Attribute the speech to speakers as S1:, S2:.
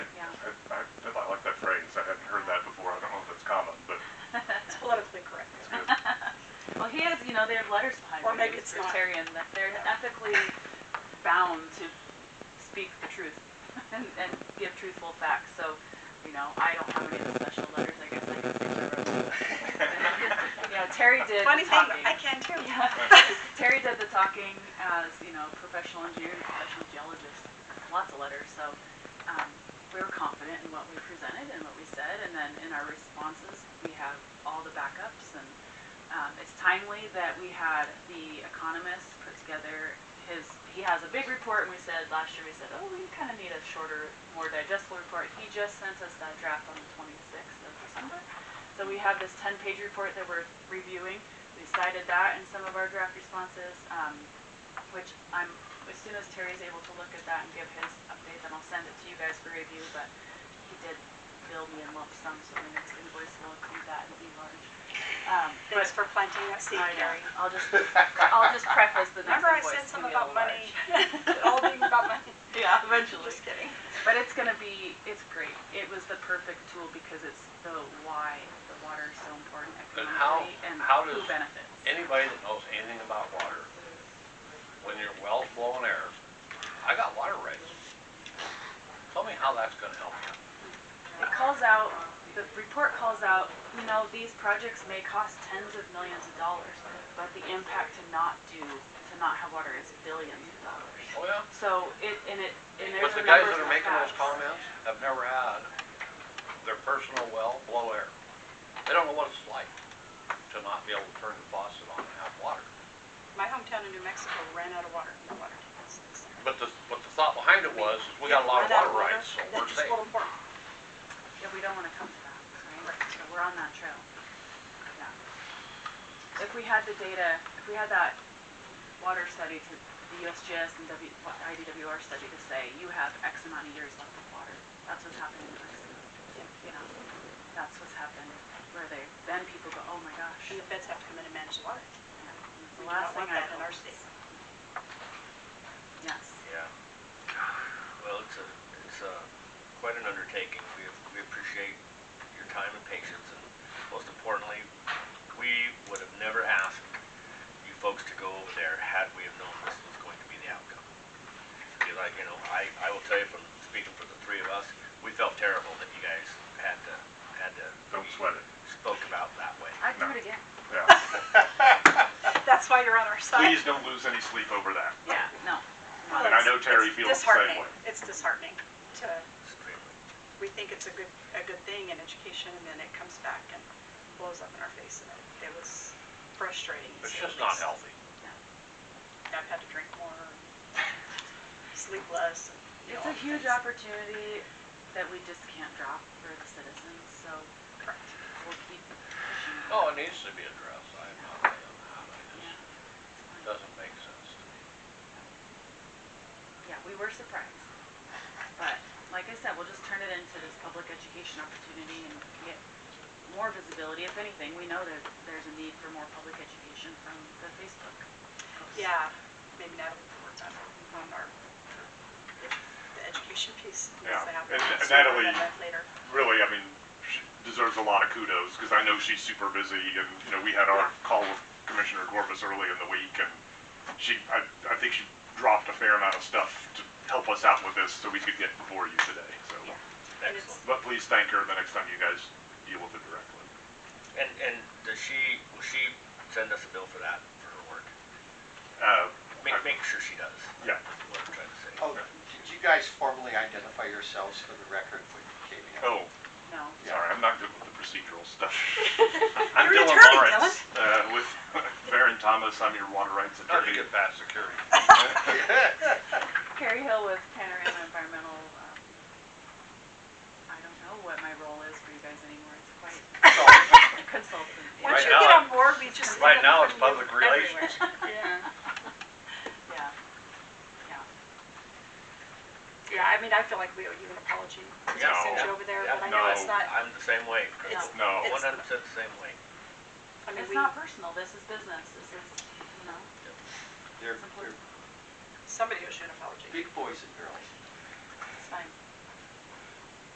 S1: it's not.
S2: libertarian, that they're ethically bound to speak the truth and, and give truthful facts, so, you know, I don't have any of the special letters, I guess I can say the You know, Terry did the
S1: Funny thing,
S2: talking.
S1: I can too.
S2: Yeah. Terry did the talking as, you know, professional engineer, and professional geologist, lots of letters, so, um, we were confident in what we presented and what we said, and then in our responses, we have all the backups, and, um, it's timely that we had the economist put together his, he has a big report, and we said, last year, we said, oh, we kinda need a shorter, more digestible report, he just sent us that draft on the twenty-sixth of December, so we have this ten-page report that we're reviewing, we cited that in some of our draft responses, um, which I'm, as soon as Terry's able to look at that and give his update, then I'll send it to you guys for review, but he did bill me in lump sum, so the next invoice will include that and be large. Um, but
S1: Thanks for planting that seed,
S2: I know.
S1: Gary.
S2: I'll just, I'll just preface the next
S1: Remember I
S2: invoice.
S1: said
S2: to be
S1: something
S2: a little
S1: about money,
S2: large.
S1: all being about money?
S2: Yeah, eventually.
S1: Just kidding.
S2: But it's gonna be, it's great. It was the perfect tool because it's the why the water is so important
S3: But how-
S2: economically and
S3: how
S2: who
S3: does-
S2: benefits.
S3: Anybody that knows anything about water, when your well's blowing air, I got water rights. Tell me how that's gonna help you.
S2: It calls out, the report calls out, you know, these projects may cost tens of millions of dollars, but the impact to not do, to not have water is billions of dollars.
S3: Oh, yeah?
S2: So it, and it, and there's
S3: But
S2: the
S3: the guys
S2: numbers
S3: that are
S2: and
S3: making those
S2: facts.
S3: comments have never had their personal well blow air. They don't know what it's like to not be able to turn the faucet on and have water.
S1: My hometown in New Mexico ran out of water, no water tables.
S3: But the, but the thought behind it was, is we got a lot of
S1: Ran out
S3: water rights, so we're
S1: That's just
S3: safe.
S1: a little important.
S2: Yeah, we don't wanna come to that, right? So we're on that trail. Yeah. If we had the data, if we had that water study to, the USGS and W, IDWR study to say, you have X amount of years left of water, that's what's happening in Mexico. You know, that's what's happened, where they, then people go, oh my gosh.
S1: And the feds have to come in and manage the water.
S2: It's
S1: We
S2: The
S1: do
S2: last
S1: not
S2: thing
S1: want
S2: I
S1: that in our
S2: heard.
S1: state.
S2: Yes.
S4: Yeah. Well, it's a, it's a, quite an undertaking. We, we appreciate your time and patience, and most importantly, we would have never asked you folks to go over there had we have known this was going to be the outcome. Because I, you know, I, I will tell you from speaking for the three of us, we felt terrible that you guys had to, had to.
S5: Don't sweat it.
S4: Spoke about that way.
S2: I'd do it again.
S5: Yeah.
S1: That's why you're on our side.
S5: Please don't lose any sleep over that.
S2: Yeah, no.
S1: Well,
S5: And I
S1: it's-
S5: know Terry
S1: it's
S5: feels the same
S1: disheartening.
S5: way.
S1: It's disheartening to,
S4: Extremely.
S1: we think it's a good, a good thing in education, and then it comes back and blows up in our face, and it- it was frustrating.
S3: It's just not healthy.
S1: I've had to drink more, sleep less. and, you
S2: It's
S1: know,
S2: a huge
S1: things.
S2: opportunity that we just can't drop for the citizens, so
S1: Correct.
S2: we'll keep pushing. it.
S3: Oh, it needs to be addressed. I'm not right on that. I just, it doesn't make sense to me.
S2: Yeah, we were surprised. But like I said, we'll just turn it into this public education opportunity and get more visibility. If anything, we know that there's a need for more public education from the Facebook. posts.
S1: Yeah, maybe Natalie can work on, on our, the education piece. needs
S5: Yeah,
S1: to happen
S5: and- and
S1: sooner
S5: Natalie-
S1: than that Later.
S5: Really, I mean, she deserves a lot of kudos because I know she's super busy and, you know, we had our call with Commissioner Corbus early in the week and she, I, I think she dropped a fair amount of stuff to help us out with this so we could get before you today, so.
S1: Yeah. And it's-
S4: Excellent.
S5: But please thank her the next time you guys deal with it directly.
S4: And, and does she, will she send us a bill for that, for her work?
S5: Uh,
S4: Make,
S5: I-
S4: make sure she does.
S5: Yeah.
S4: That's What I'm trying to say.
S6: Oh, did you guys formally identify yourselves for the record when you came in?
S5: Oh,
S2: No.
S5: sorry, I'm not good with the procedural stuff. I'm
S1: You're an
S5: Dylan
S1: attorney,
S5: Lawrence, uh, with Baron Thomas, I'm your water rights
S3: How'd you
S5: attorney.
S3: get past security?
S2: Carrie Hill with Panorama Environmental, um, I don't know what my role is for you guys anymore. It's quite consultant.
S3: Right
S1: Once you
S3: now
S1: get on
S3: I'm-
S1: board, we just.
S3: right
S1: end up
S3: now it's
S1: putting you
S3: public relations.
S1: everywhere. Yeah.
S2: Yeah. Yeah.
S1: Yeah, I mean, I feel like we owe you an apology. because I sent you
S5: No.
S1: over there,
S4: Yeah,
S1: but I know it's
S5: no.
S1: not,
S4: I'm the same way.
S1: it's,
S5: No,
S4: One hundred percent the same way.
S1: I mean,
S2: It's
S1: we,
S2: not personal. This is business. This is, you know,
S6: They're,
S2: Simply-
S6: they're
S1: somebody owes you an apology.
S6: big boys and girls.
S2: it's fine.